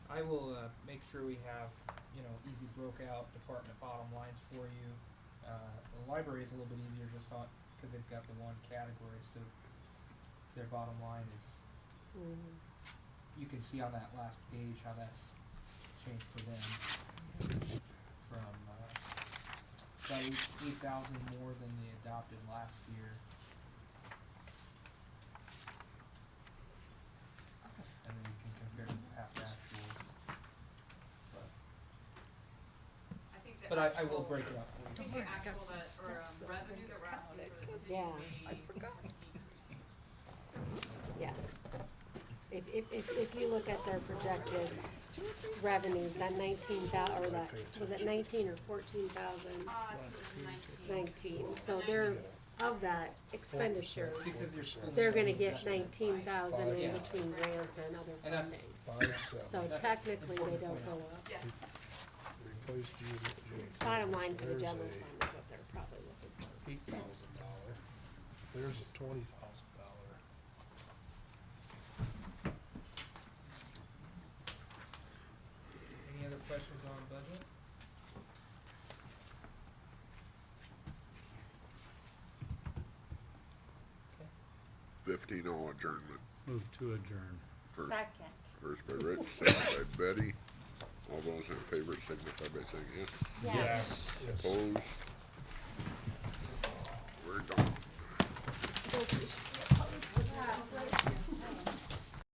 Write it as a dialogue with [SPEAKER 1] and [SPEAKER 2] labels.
[SPEAKER 1] I will, uh, make sure we have, you know, easy broke out department bottom lines for you. Uh, the library is a little bit easier just on, cause they've got the one category, so their bottom line is,
[SPEAKER 2] Mm,
[SPEAKER 1] you can see on that last page how that's changed for them. From, uh, about eight, eight thousand more than they adopted last year. And then you can compare it to past actuals, but,
[SPEAKER 3] I think the
[SPEAKER 1] but I, I will
[SPEAKER 3] actual-
[SPEAKER 1] break it up for
[SPEAKER 3] I
[SPEAKER 1] you.
[SPEAKER 3] think
[SPEAKER 4] Don't
[SPEAKER 3] the
[SPEAKER 4] worry, I got
[SPEAKER 3] actual
[SPEAKER 4] some
[SPEAKER 3] that, or um,
[SPEAKER 4] steps that I
[SPEAKER 3] revenue
[SPEAKER 4] can
[SPEAKER 3] that we're
[SPEAKER 4] count
[SPEAKER 3] asking
[SPEAKER 4] it.
[SPEAKER 3] for the city
[SPEAKER 2] Yeah.
[SPEAKER 4] I
[SPEAKER 3] may
[SPEAKER 4] forgot.
[SPEAKER 3] decrease.
[SPEAKER 2] Yeah. If, if, if, if you look at their projected revenues, that nineteen thou, or that, was it nineteen or fourteen thousand?
[SPEAKER 3] Uh, I think it was nineteen.
[SPEAKER 2] Nineteen, so they're, of that expenditure,
[SPEAKER 1] Because you're still.
[SPEAKER 2] they're gonna get
[SPEAKER 1] Yeah.
[SPEAKER 2] nineteen thousand in
[SPEAKER 1] Yeah.
[SPEAKER 2] between grants and other
[SPEAKER 1] And that's-
[SPEAKER 2] funding.
[SPEAKER 5] Five,
[SPEAKER 2] So
[SPEAKER 5] seven,
[SPEAKER 1] That's
[SPEAKER 2] technically, they
[SPEAKER 1] important
[SPEAKER 2] don't
[SPEAKER 1] point.
[SPEAKER 2] go up.
[SPEAKER 3] Yes,
[SPEAKER 5] replace June, June.
[SPEAKER 2] Bottom
[SPEAKER 5] 30th.
[SPEAKER 2] line for the
[SPEAKER 5] There's
[SPEAKER 2] general
[SPEAKER 5] a
[SPEAKER 2] fund is what they're probably looking for.
[SPEAKER 5] Eight thousand dollar, there's a twenty thousand dollar.
[SPEAKER 1] Any other questions on budget?
[SPEAKER 6] Fifteen oh adjournment.
[SPEAKER 7] Move to adjourn.
[SPEAKER 6] First,
[SPEAKER 4] Second.
[SPEAKER 6] first by Rich, second by Betty. All those in favor signify by saying yes.
[SPEAKER 4] Yes.
[SPEAKER 5] Yes.
[SPEAKER 6] Opposed? We're done.
[SPEAKER 2] Don't push.